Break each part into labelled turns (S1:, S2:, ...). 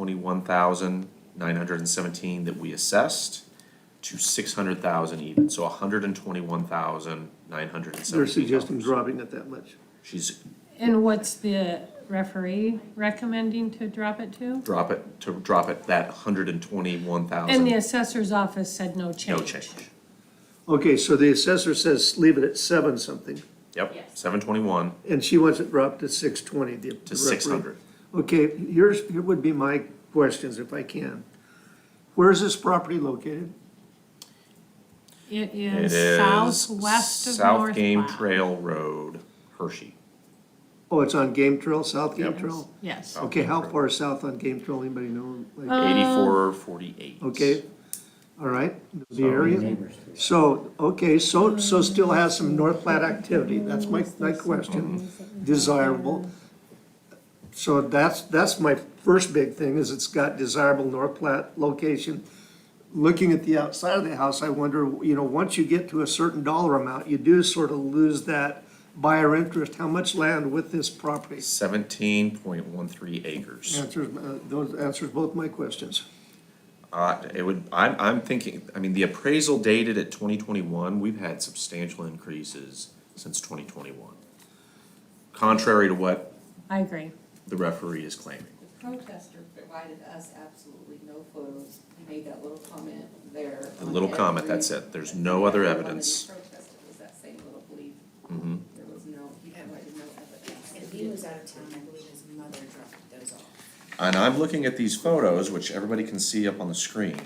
S1: twenty-one thousand nine hundred and seventeen that we assessed to six hundred thousand even, so hundred and twenty-one thousand nine hundred and
S2: They're
S1: seventeen
S2: suggesting
S1: dollars.
S2: dropping it that much.
S1: She's
S3: And what's the referee recommending to drop it to?
S1: drop it, to drop it that hundred and twenty-one
S3: And the
S1: thousand,
S3: assessor's office said no change.
S1: no change.
S2: Okay, so the assessor says leave it at seven something,
S1: Yep, seven twenty-one
S2: and she wants it dropped to six twenty, the. the
S1: to
S2: referee.
S1: six hundred.
S2: Okay, yours, here would be my questions if I can. Where is this property located?
S3: It
S1: It
S3: is
S1: is
S3: southwest of
S1: South
S3: North
S1: Game
S3: Platte.
S1: Trail Road, Hershey.
S2: Oh, it's on Game Trail, South Game
S1: Yep.
S2: Trail?
S3: Yes,
S1: South
S2: Okay,
S1: Game
S2: how
S1: Trail.
S2: far south on Game Trail, anybody know? Like,
S3: Uh,
S1: Eighty-four forty-eight.
S2: Okay, all right, the area. So, okay, so, so still has some North Platte activity, that's my, my question, desirable. So that's, that's my first big thing, is it's got desirable North Platte location. Looking at the outside of the house, I wonder, you know, once you get to a certain dollar amount, you do sort of lose that buyer interest, how much land with this property?
S1: Seventeen point one three acres.
S2: Answers, uh, those answers both my questions.
S1: Uh, it would, I'm, I'm thinking, I mean, the appraisal dated at twenty twenty-one, we've had substantial increases since twenty twenty-one. Contrary to what
S3: I agree.
S1: the referee is claiming.
S4: protester provided us absolutely no photos, he made that little comment there.
S1: The
S4: on
S1: little comment,
S4: every-
S1: that's it. There's no other
S4: Every one that
S1: evidence.
S4: he protested was that same little belief,
S1: Mhm.
S4: there was no, he provided no evidence.
S5: And he was out of town, I believe his mother dropped those off.
S1: And I'm looking at these photos, which everybody can see up on the screen.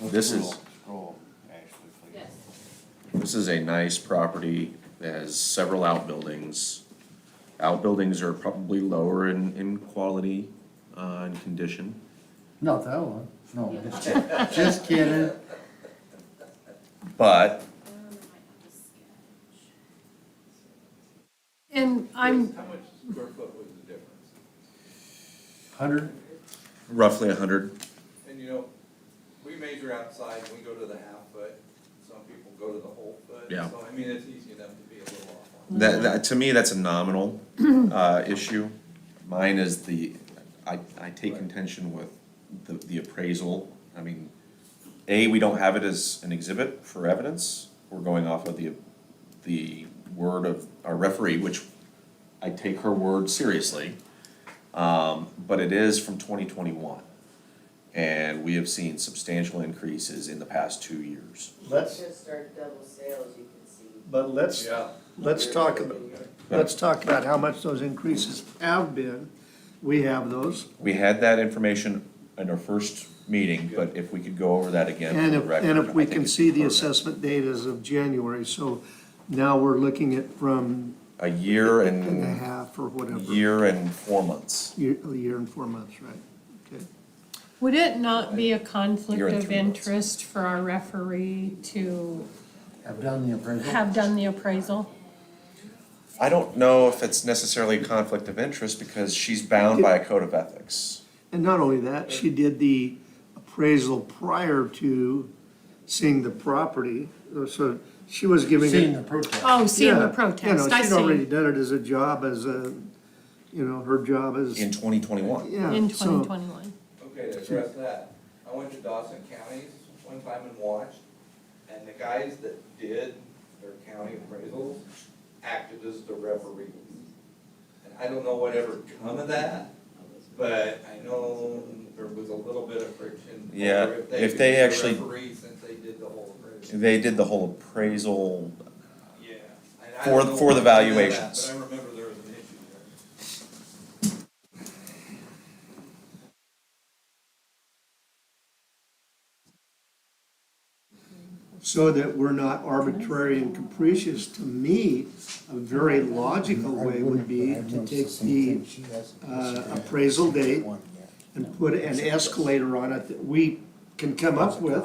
S1: This is,
S6: Scroll, Scroll, Ashley, please.
S1: this is a nice property that has several outbuildings. Outbuildings are probably lower in, in quality, uh, and condition.
S6: Not that one, no, just- just kidding.
S1: But
S3: And I'm,
S7: How much square foot was the difference?
S6: Hundred,
S1: roughly a hundred,
S7: And you know, we measure outside, we go to the half foot, some people go to the whole foot.
S1: Yeah.
S7: So I mean, it's easy enough to be a little off on.
S1: that, that, to me, that's a nominal, uh, issue. Mine is the, I, I take contention with the, the appraisal. I mean, A, we don't have it as an exhibit for evidence. We're going off of the, the word of our referee, which I take her word seriously. Um, but it is from twenty twenty-one. And we have seen substantial increases in the past two years.
S2: Let's,
S8: Just start double sales, you can see.
S2: but let's,
S7: Yeah.
S2: let's talk about, let's talk about how much those increases have been. We have those,
S1: We had that information in our first meeting, but if we could go over that again
S2: and
S1: for the
S2: if,
S1: record.
S2: and if we
S1: I think
S2: can
S1: it's
S2: see the
S1: pertinent.
S2: assessment data as of January, so now we're looking at from
S1: A year
S2: and a
S1: and,
S2: half or whatever.
S1: year and four months.
S2: Year, a year and four months, right, okay.
S3: would it not be a
S1: You're
S3: conflict
S1: in
S3: of
S1: three months.
S3: interest for our referee to
S6: I've done the appraisal.
S3: have done the appraisal?
S1: I don't know if it's necessarily a conflict of interest because she's bound by a code of ethics.
S2: And not only that, she did the appraisal prior to seeing the property, uh, so she was giving it.
S6: Seen the protest.
S3: Oh, seeing
S2: Yeah,
S3: the
S2: you know,
S3: protest, I
S2: She'd already
S3: see.
S2: done it as a job, as a, you know, her job as,
S1: In twenty twenty-one,
S2: yeah.
S3: In
S2: so-
S3: twenty twenty-one.
S7: Okay, to address that, I went to Dawson Counties one time and watched, and the guys that did their county appraisals acted as the referees. And I don't know whatever come of that, but I know there was a little bit of friction. over
S1: Yeah, if
S7: could
S1: they
S7: be the
S1: actually-
S7: Referee since they did the whole appraisal.
S1: they did the whole appraisal.
S7: Yeah. And I
S1: For-
S7: don't know
S1: for the
S7: what come of that,
S1: valuations.
S7: But I remember there was an issue there.
S2: So that we're not arbitrary and capricious, to me, a very logical way would be to take the uh, appraisal date and put an escalator on it that we can come up with.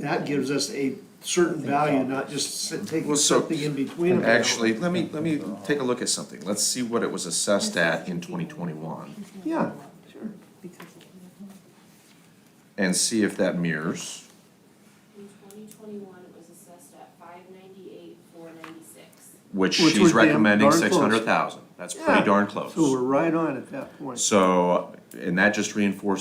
S2: That gives us a certain value, not just s- taking
S1: Well, so-
S2: something in between.
S1: And
S2: them.
S1: actually, let me, let me take a look at something. Let's see what it was assessed at in twenty twenty-one
S2: Yeah, sure.
S1: and see if that mirrors.
S9: In twenty twenty-one, it was assessed at five ninety-eight, four ninety-six.
S1: Which
S2: Which
S1: she's
S2: would be
S1: recommending
S2: darn close.
S1: six hundred thousand, that's pretty
S2: Yeah.
S1: darn close.
S2: So we're right on at that point.
S1: So, and that just reinforces